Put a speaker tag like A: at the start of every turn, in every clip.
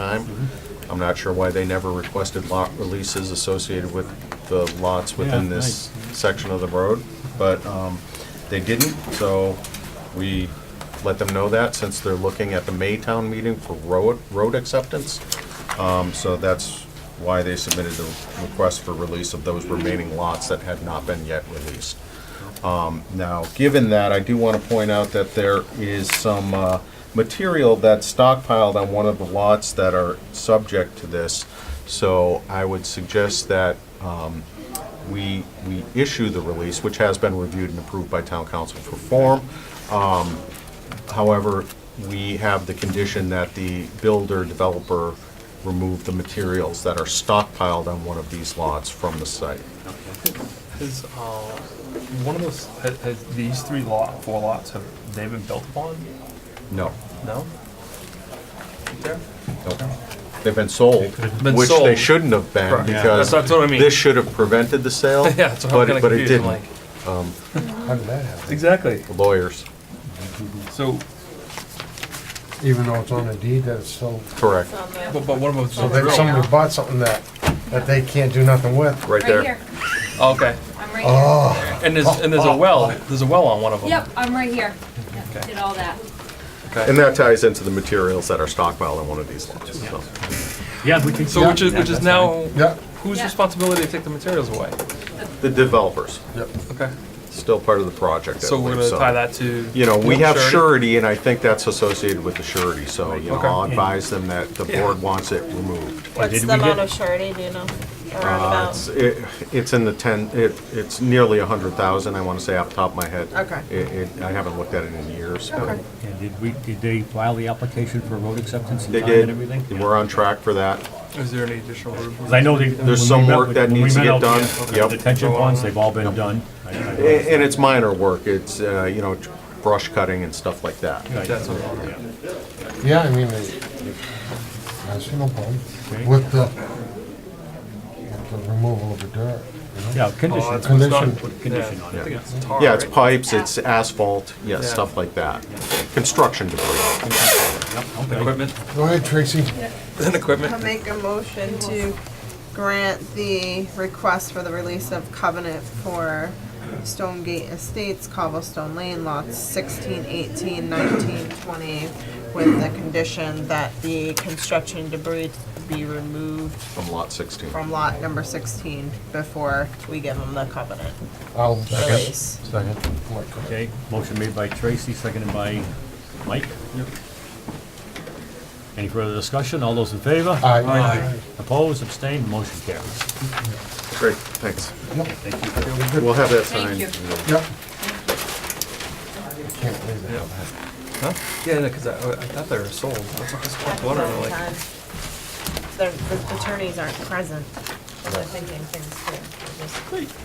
A: time. I'm not sure why they never requested lot releases associated with the lots within
B: Yeah,
A: this section of the road, but um, they didn't, so we let them know that since they're looking at the Maytown meeting for road, road acceptance. Um, So that's why they submitted the request for release of those remaining lots that had not been yet released. Now, given that, I do want to point out that there is some uh, material that's stockpiled on one of the lots that are subject to this. So I would suggest that um, we, we issue the release, which has been reviewed and approved by town council for form. Um, However, we have the condition that the builder developer remove the materials that are stockpiled on one of these lots from the site.
C: Has, uh, one of those, ha- has these three lot, four lots, have they been built upon?
A: No,
C: No? There?
A: Nope. They've been sold,
C: been
A: which they
C: sold.
A: shouldn't have been,
C: Correct. Yeah.
A: because
C: That's- that's what I mean.
A: this should have prevented the sale,
C: Yeah, that's what I'm
A: but
C: kinda
A: it- but it
C: confused, I'm
A: didn't.
C: like.
D: How did that happen?
C: Exactly,
A: The Lawyers,
C: so,
D: Even though it's on a deed, that's still,
A: correct,
C: but, but one of them's
D: so
C: still
D: that
C: drilled.
D: somebody bought something that, that they can't do nothing with.
A: right
E: Right here.
A: there.
C: Oh, Okay,
E: I'm right here.
D: Oh,
C: and there's, and there's a well, there's a well on one of them.
E: Yep, I'm right here.
C: Okay.
E: Did all that.
A: And
C: Okay,
A: that ties into the materials that are stockpiled on one of these lots, so.
B: Yeah, we can.
C: so which is, which is now,
D: yeah,
C: whose
E: Yeah.
C: responsibility to take the materials away?
A: The developers,
D: yeah.
C: Okay,
A: still part of the project, I
C: so we're
A: believe,
C: gonna tie
A: so.
C: that to.
A: You know, we have
C: surety?
A: surety, and I think that's associated with the surety, so, you know,
C: Okay.
A: I'll advise them that the
C: Yeah.
A: board wants it removed.
F: What's
B: did
F: the
B: we get-
F: amount of surety, do you know? Around
A: Uh,
F: about?
A: It's it- it's in the 10, it- it's nearly 100,000, I want to say off the top of my head.
F: Okay.
A: It- it- I haven't looked at it in years. but
F: Okay.
B: And did we, did they file the application for road acceptance in
A: They
B: time and
A: did,
B: everything?
A: and we're on track for that.
C: Is there any additional?
B: Because I know they. when we
A: some
B: met
A: work
B: with-
A: that
B: when we
A: needs to
B: met
A: get
B: out
A: done.
B: there,
A: Yep.
B: The detention ponds, they've all been done. I- I-
A: A- And it's minor work, it's, uh, you know, brush cutting and stuff like that.
B: I-
C: That's what I'm-
B: yeah.
D: Yeah, I mean, it- that's no problem with the, with the removal of the dirt, you know?
B: Yeah,
C: Oh,
B: condition,
C: that's what's not-
D: Condition.
C: yeah,
B: Condition on it.
C: I think it's tar,
A: Yeah, it's
C: right?
A: pipes, it's asphalt, yeah,
C: Yeah.
A: stuff like that. Construction debris.
B: okay.
C: Equipment,
D: Go ahead, Tracy.
C: and
F: I'll
C: equipment.
F: make a motion to grant the request for the release of covenant for Stonegate Estates, Cobblestone Lane, lots 16, 18, 19, 20, with the condition that the construction debris be removed
A: From lot 16.
F: from lot number 16 before we give them the covenant
D: I'll second.
F: release.
D: Second.
B: Okay, motion made by Tracy, seconded by Mike. Any further discussion? All those in favor?
D: Aye.
B: Opposed, abstained, motion carries.
A: Great, thanks.
B: Thank you.
A: We'll have that
E: Thank
A: signed.
E: you.
D: Yep. Can't believe that.
C: Huh? Yeah, because I, I thought they were sold. That's what I was wondering, like.
F: The the attorneys aren't present, so they're thinking things through. They just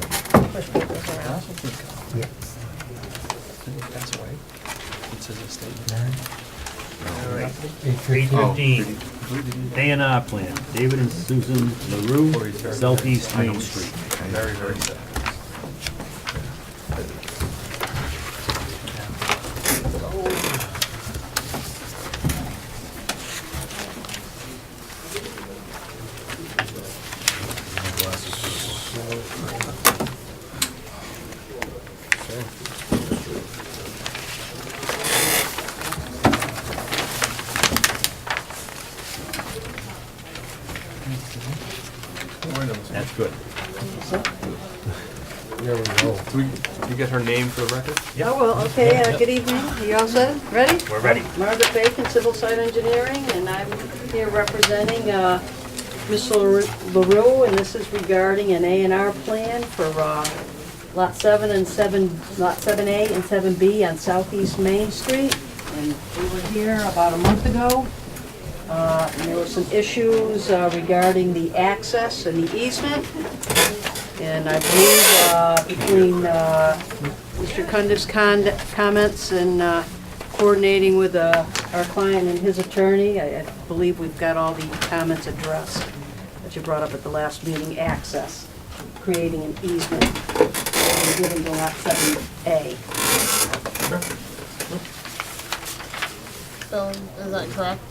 F: push papers
C: I
F: around.
C: also think
D: Yeah.
C: that's away. It says estate.
B: All right.
D: Eight
B: Page
D: fifteen.
B: fifteen, A and R plan, David and Susan LaRue, Southeast Main Street.
C: Very, very sad.
B: That's good.
D: There we go.
C: Do we, do we get her name for the record?
G: Oh, well, okay, uh, good evening. You all set? Ready?
B: We're ready.
G: Margaret Bacon, Civil Site Engineering, and I'm here representing uh, Mr. LaRue, and this is regarding an A and R plan for uh, Lot 7 and 7, Lot 7A and 7B on Southeast Main Street. And we were here about a month ago. Uh, and There were some issues uh, regarding the access and the easement. And I believe uh, between uh, Mr. Cundiff's con- comments and uh, coordinating with uh, our client and his attorney, I I believe we've got all the comments addressed that you brought up at the last meeting, access, creating an easement, and giving the lot 7A.
F: Bill, is that correct?